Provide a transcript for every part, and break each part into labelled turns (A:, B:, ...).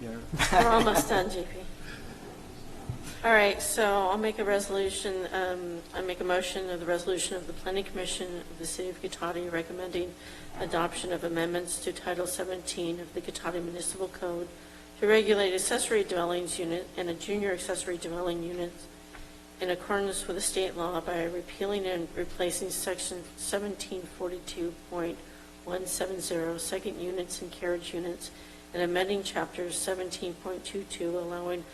A: there.
B: We're almost done, JP. All right, so I'll make a resolution, um, I make a motion of the resolution of the Planning Commission of the City of Guitati recommending adoption of amendments to Title 17 of the Guitati Municipal Code to regulate accessory dwellings unit and a junior accessory dwelling unit in accordance with the state law by repealing and replacing section 1742.170, second units and carriage units, and amending chapter 17.22, allowing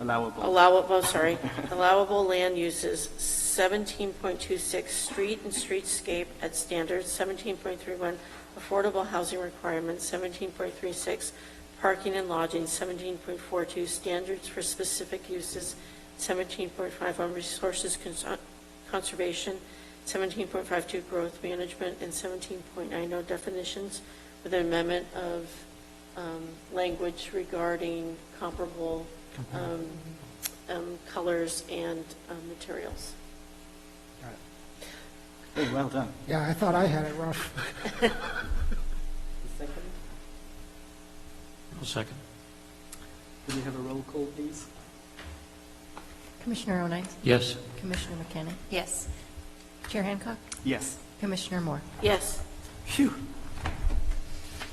A: Allowable.
B: allowable, oh, sorry, allowable land uses, 17.26, street and streetscape at standards, 17.31, affordable housing requirements, 17.36, parking and lodging, 17.42, standards for specific uses, 17.51, resources cons- conservation, 17.52, growth management, and 17.90, definitions, with an amendment of um, language regarding comparable um, um, colors and um, materials.
A: Hey, Oh, well done.
C: Yeah, I thought I had it rough.
D: I'll second.
A: Could we have a roll call, please?
E: Commissioner O'Naitz?
D: Yes,
E: Commissioner McKenna? Yes. Chair Hancock?
A: Yes.
E: Commissioner Moore?
B: Yes,
A: Phew.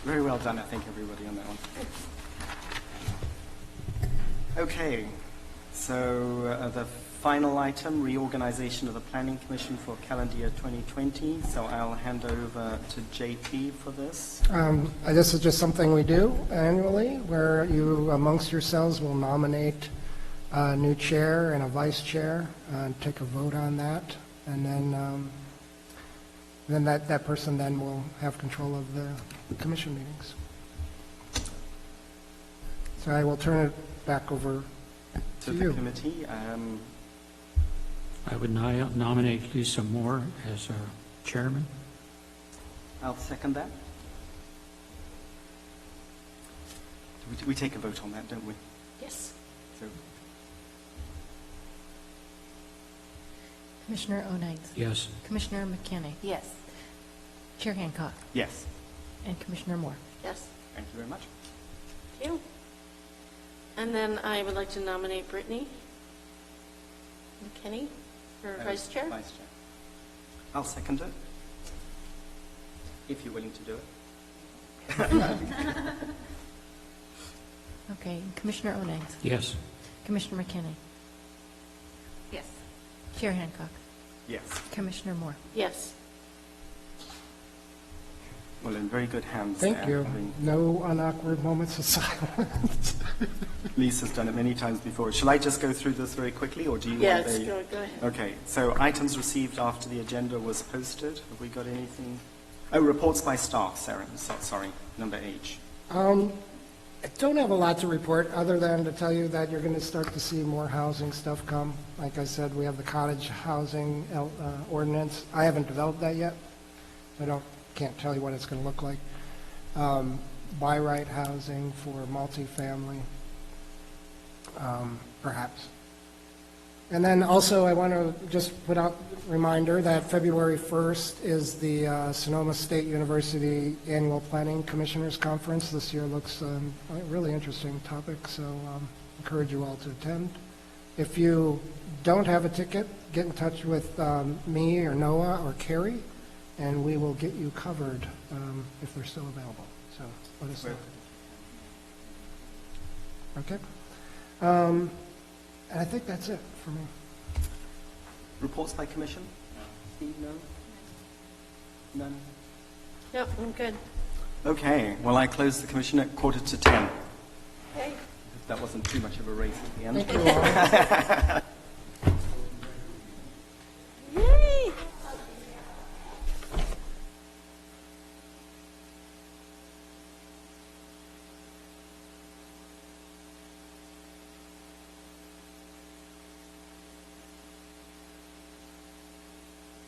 A: Very well done, I think, everybody on that one. Okay, so uh, the final item, reorganization of the Planning Commission for calendar year 2020. So I'll hand over to JP for this.
C: Um, uh, This is just something we do annually, where you amongst yourselves will nominate a new chair and a vice chair, uh, and take a vote on that, and then, um, then that, that person then will have control of the commission meetings. So I will turn it back over
A: To
C: to
A: the
C: you.
A: committee, um,
D: I would ni- nominate Lisa Moore as our chairman.
A: I'll second that. We- We take a vote on that, don't we?
E: Yes.
A: So
E: Commissioner O'Naitz?
D: Yes,
E: Commissioner McKenna? Yes. Chair Hancock?
A: Yes,
E: And Commissioner Moore?
B: yes,
A: thank you very much.
B: thank you. And then I would like to nominate Brittany McKinney for
A: Uh,
B: vice chair.
A: Vice Chair. I'll second it, if you're willing to do it.
E: Okay, Commissioner O'Naitz?
D: yes,
E: Commissioner McKenna? Yes. Chair Hancock?
A: Yes.
E: Commissioner Moore?
B: Yes,
A: Well, in very good hands.
C: Thank
A: there.
C: you.
A: I mean,
C: No unawkward moments of silence.
A: Lisa's done it many times before. Shall I just go through this very quickly, or do you want
B: yes,
A: the...
B: go go ahead.
A: Okay, so items received after the agenda was posted. Have we got anything? Oh, reports by staff, Sarah, so- sorry, number H.
C: Um, I don't have a lot to report, other than to tell you that you're going to start to see more housing stuff come. Like I said, we have the cottage housing el- uh, ordinance. I haven't developed that yet. I don't, can't tell you what it's going to look like. Um, Buy right housing for multifamily, um, perhaps. And then also, I want to just put out a reminder that February 1st is the uh, Sonoma State University Annual Planning Commissioners Conference. This year looks um, a really interesting topic, so um, encourage you all to attend. If you don't have a ticket, get in touch with um, me or Noah or Carrie, and we will get you covered um, if they're still available. So let us know. Okay? Um, And I think that's it for me.
A: Reports by commission? Steve, no? None?
B: Yep, I'm good.
A: Okay, well, I close the commission at quarter to 10.
B: Okay.
A: That wasn't too much of a race at the end.
C: Thank you all.